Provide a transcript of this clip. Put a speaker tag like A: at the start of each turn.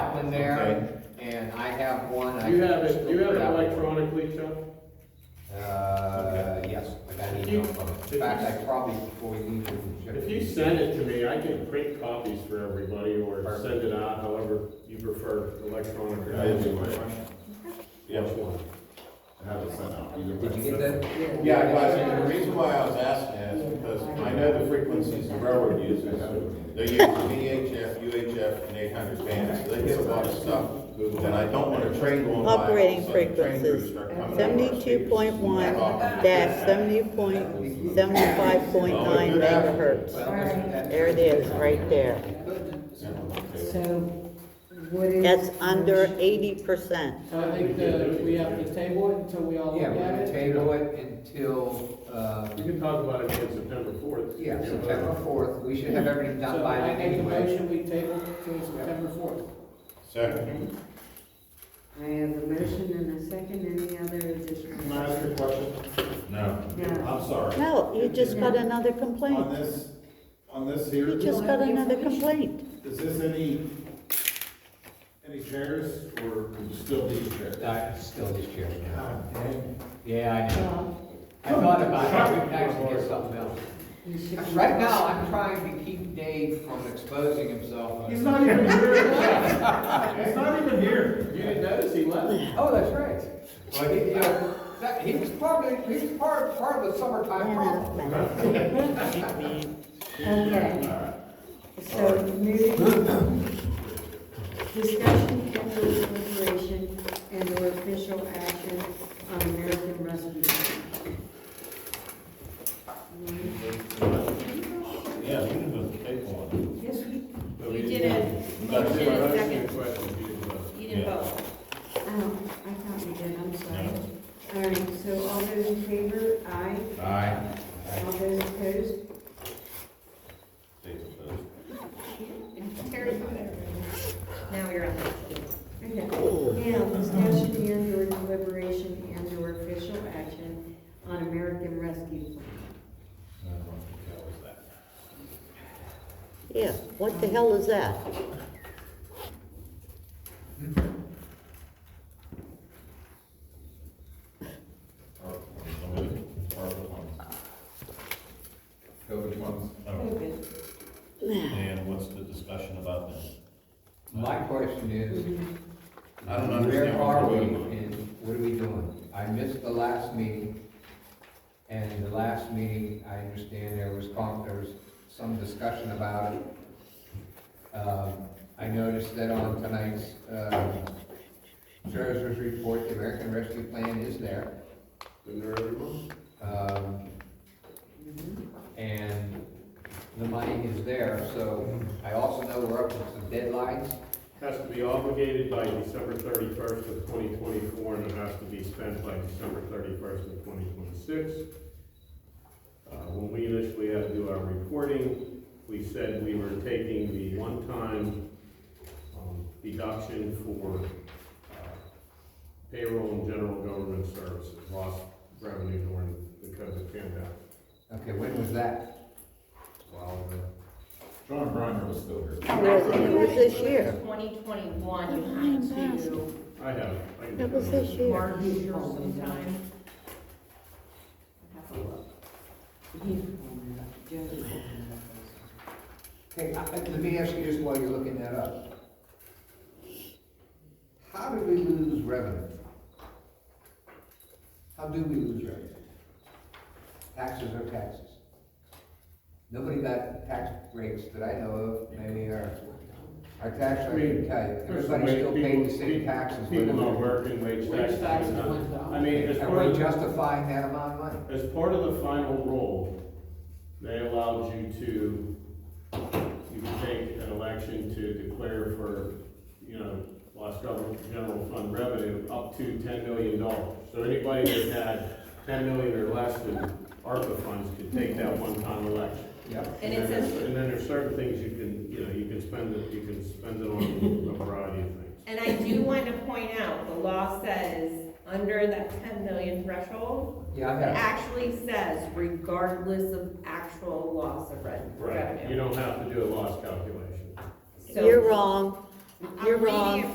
A: in there, and I have one. I
B: You
A: can
B: have it,
A: still
B: you have it
A: grab one.
B: electronically, Chuck?
A: Uh, yes, I got an
B: If
A: email
B: you-
A: from
B: if
A: it.
B: you-
A: In fact, I probably, before we leave, we can check.
B: If you send it to me, I can print copies for everybody or send it out, however you prefer, electronic or
C: I have a
B: anyway.
C: question.
B: Which one?
C: I have it sent out. Either
A: Did
C: way.
A: you get that?
C: Yeah, but the reason why I was asking that is because I know the frequencies the railroad uses. They use VHF, UHF, and eight hundred bands, so they get a lot of stuff. And I don't want a train going by. all of a
D: Operating
C: sudden the train crews
D: frequencies,
C: start coming over our
D: seventy-two point one dash seventy point, seventy-five point nine megahertz. There it is, right there.
C: speakers.
E: So what is?
D: That's under eighty percent.
F: So I think that we have to table it until we all look
A: Yeah,
F: at
A: we're gonna
F: it.
A: table it until, uh,
B: You can talk about it again September fourth.
A: yeah, September fourth. We should have everything done
F: So
A: by
F: I
A: then
F: make a
A: anyway.
F: motion, we table it till September fourth.
C: Second.
E: Okay. I have a motion and a second, any other
C: Can I
E: additional?
C: ask you a question? No.
E: No.
C: I'm sorry.
D: No, you just got another
C: On
D: complaint.
C: this, on this here,
D: You just got another complaint.
C: is this any, any chairs or would you still need chairs?
A: I still just chair now.
C: Ah,
A: Yeah, I know.
E: Well,
A: I thought about it. We can actually get something else.
E: you should-
A: Right now, I'm trying to keep Dave from exposing himself.
B: He's not even here. He's not even here. You didn't notice he left?
A: Oh, that's right. Well, he, you know, that, he was probably, he was part, part of the summertime problem.
E: Okay. So moving, discussion, deliberation, and or official action on American resolution.
C: Yeah, you can just take one.
E: Yes, we,
G: You didn't, you
C: That's
G: did
C: what I
G: a
C: was
G: second,
B: Question, you didn't vote.
G: you didn't
C: Yeah.
G: vote.
E: oh, I thought we did, I'm sorry. All right, so all those in favor, aye.
A: Aye.
E: All those opposed?
C: Take those.
G: Terry's not there. Now you're on.
E: Okay. Now, discussion and or deliberation and or official action on American Rescue Plan.
C: No, that was that.
D: Yeah, what the hell is that?
C: Or- or the- or the ones.
A: Go which ones?
C: Oh, And what's the discussion about that?
A: My question is,
C: I don't
A: where
C: understand
A: are
C: what
A: we
C: we're doing.
A: and what are we doing? I missed the last meeting, and the last meeting, I understand there was, con- there was some discussion about it. Um, I noticed that on tonight's, uh, treasurer's report, the American Rescue Plan is there.
B: Didn't there everyone?
A: Um, And the money is there, so I also know we're up to some deadlines.
B: Has to be obligated by December thirty-first of twenty twenty-four, and it has to be spent by December thirty-first of twenty twenty-six. Uh, when we initially had to do our reporting, we said we were taking the one-time, um, deduction for, uh, payroll and general government services, lost revenue during the COVID pandemic.
A: Okay, when was that?
B: Well, uh,
C: John Briner was still here.
D: It was- it was this year.
G: Twenty twenty-one, you had to
B: I have, it. I can.
D: It was this year.
G: mark your sometime. Have to look.
A: Hey, I- I- let me ask you just while you're looking that up. How did we lose revenue? How do we lose revenue? Taxes are taxes. Nobody got tax breaks that I know of, maybe our, our tax rate can tell you.
B: There's
A: Everybody still
B: wage-
A: paid the
B: people-
A: same taxes.
B: People
A: whether-
B: not working, wage
F: Wage
B: taxes.
F: taxes
B: not-
F: went down.
B: I mean, as part
A: Are we
B: of,
A: justifying that amount of money?
B: as part of the final rule, they allowed you to, you could take an election to declare for, you know, lost government general fund revenue up to ten million dollars. So anybody that had ten million or less in ARPA funds could take that one-time election.
A: Yep.
G: And it says,
B: And then there's certain things you can, you know, you can spend it, you can spend it on a variety of things.
G: and I do want to point out, the law says, under that ten million threshold,
A: Yeah, I
G: it
A: have.
G: actually says regardless of actual loss of rev-
B: Right, you
G: revenue.
B: don't have to do a loss calculation.
G: So-
D: You're wrong. You're
G: I'm reading
D: wrong.
G: it